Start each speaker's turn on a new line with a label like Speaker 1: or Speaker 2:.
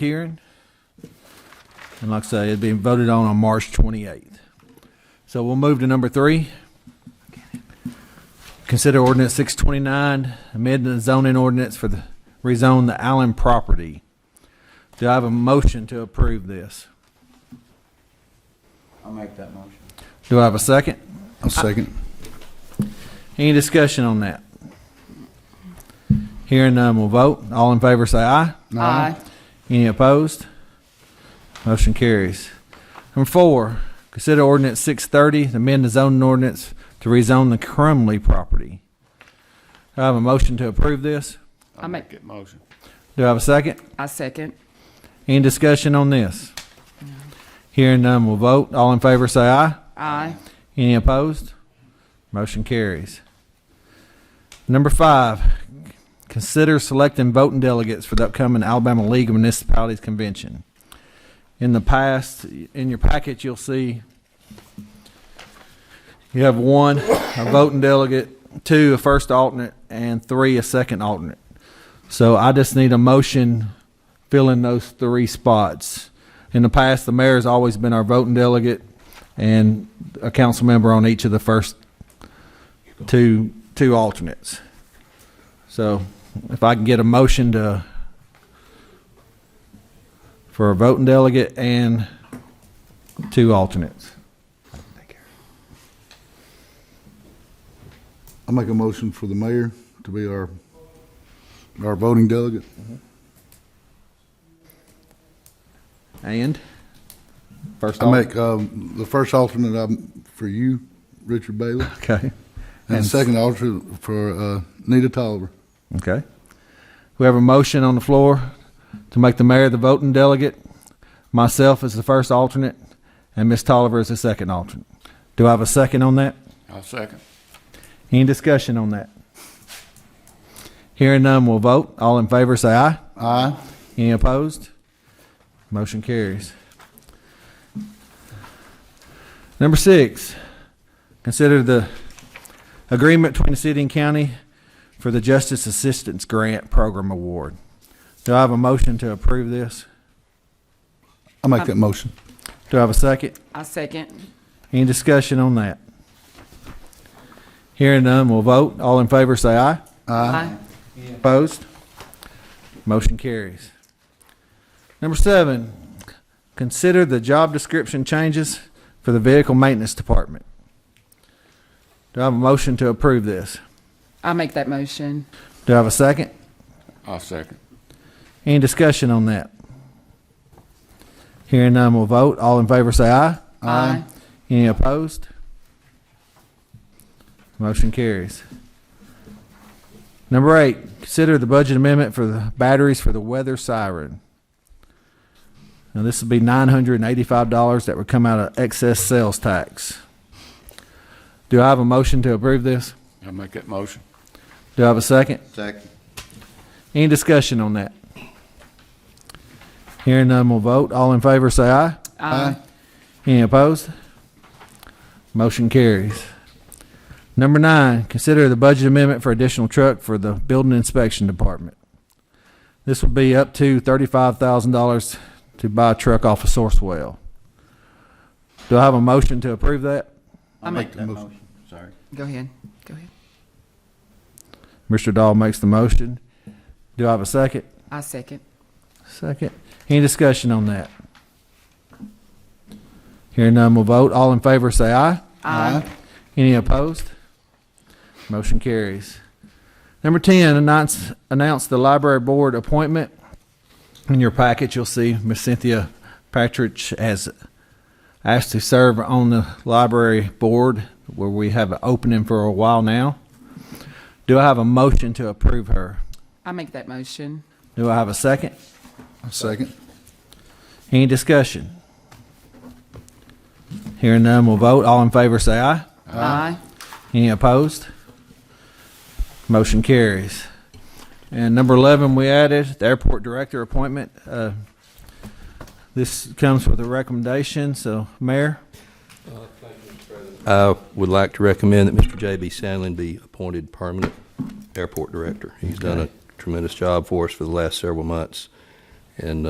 Speaker 1: hearing. And like I say, it's being voted on on March 28th. So we'll move to number three. Consider ordinance 629, amend the zoning ordinance for the, rezone the Allen property. Do I have a motion to approve this?
Speaker 2: I'll make that motion.
Speaker 1: Do I have a second?
Speaker 3: I'll second.
Speaker 1: Any discussion on that? Hearing none, we'll vote. All in favor, say aye.
Speaker 3: Aye.
Speaker 1: Any opposed? Motion carries. Number four, consider ordinance six thirty, amend the zoning ordinance to rezone the Crumley property. Do I have a motion to approve this?
Speaker 2: I'll
Speaker 4: I make-
Speaker 2: it motion.
Speaker 1: Do I have a second?
Speaker 4: I second.
Speaker 1: Any discussion on this? Hearing none, we'll vote. All in favor, say aye.
Speaker 4: Aye.
Speaker 1: Any opposed? Motion carries. Number five, consider selecting voting delegates for the upcoming Alabama League of Municipalities Convention. In the past, in your packet, you'll see you have one, a voting delegate, two, a first alternate, and three, a second alternate. So I just need a motion filling those three spots. In the past, the mayor's always been our voting delegate and a council member on each of the first two, two alternates. So if I can get a motion to, for a voting delegate and two alternates.
Speaker 3: I'll make a motion for the mayor to be our, our voting delegate.
Speaker 1: And? First
Speaker 3: I
Speaker 1: alternate.
Speaker 3: make, um, the first alternate um, for you, Richard Bailey,
Speaker 1: Okay,
Speaker 3: and the
Speaker 1: And-
Speaker 3: second alternate for, uh, Nita Tolliver.
Speaker 1: okay. We have a motion on the floor to make the mayor the voting delegate, myself as the first alternate, and Ms. Tolliver as the second alternate. Do I have a second on that?
Speaker 2: I'll second.
Speaker 1: Any discussion on that? Hearing none, we'll vote. All in favor, say aye.
Speaker 3: Aye.
Speaker 1: Any opposed? Motion carries. Number six, consider the agreement between the city and county for the Justice Assistance Grant Program Award. Do I have a motion to approve this?
Speaker 3: I'll make that motion.
Speaker 1: Do I have a second?
Speaker 4: I second.
Speaker 1: Any discussion on that? Hearing none, we'll vote. All in favor, say aye.
Speaker 4: Aye.
Speaker 1: Opposed? Motion carries. Number seven, consider the job description changes for the Vehicle Maintenance Department. Do I have a motion to approve this?
Speaker 4: I make that motion.
Speaker 1: Do I have a second?
Speaker 2: I'll second.
Speaker 1: Any discussion on that? Hearing none, we'll vote. All in favor, say aye.
Speaker 4: Aye.
Speaker 1: Any opposed? Motion carries. Number eight, consider the budget amendment for the batteries for the weather siren. Now, this would be nine hundred and eighty-five dollars that would come out of excess sales tax. Do I have a motion to approve this?
Speaker 2: I'll make that motion.
Speaker 1: Do I have a second?
Speaker 2: Second.
Speaker 1: Any discussion on that? Hearing none, we'll vote. All in favor, say aye.
Speaker 4: Aye.
Speaker 1: Any opposed? Motion carries. Number nine, consider the budget amendment for additional truck for the Building Inspection Department. This will be up to thirty-five thousand dollars to buy a truck off of Sourcewell. Do I have a motion to approve that?
Speaker 4: I'll make
Speaker 3: that motion.
Speaker 2: Sorry.
Speaker 4: Go ahead. Go ahead.
Speaker 1: Mr. Dahl makes the motion. Do I have a second?
Speaker 4: I second.
Speaker 1: Second. Any discussion on that? Hearing none, we'll vote. All in favor, say aye.
Speaker 4: Aye.
Speaker 1: Any opposed? Motion carries. Number 10, announce, announce the library board appointment. In your packet, you'll see Miss Cynthia Patridge has asked to serve on the library board where we have an opening for a while now. Do I have a motion to approve her?
Speaker 4: I make that motion.
Speaker 1: Do I have a second?
Speaker 3: I'll second.
Speaker 1: Any discussion? Hearing none, we'll vote. All in favor, say aye.
Speaker 4: Aye.
Speaker 1: Any opposed? Motion carries. And number 11, we added the airport director appointment. Uh, This comes with a recommendation, so Mayor,
Speaker 5: I would like to recommend that Mr. J.B. Sandlin be appointed permanent airport director. He's done a tremendous job for us for the last several months, and uh,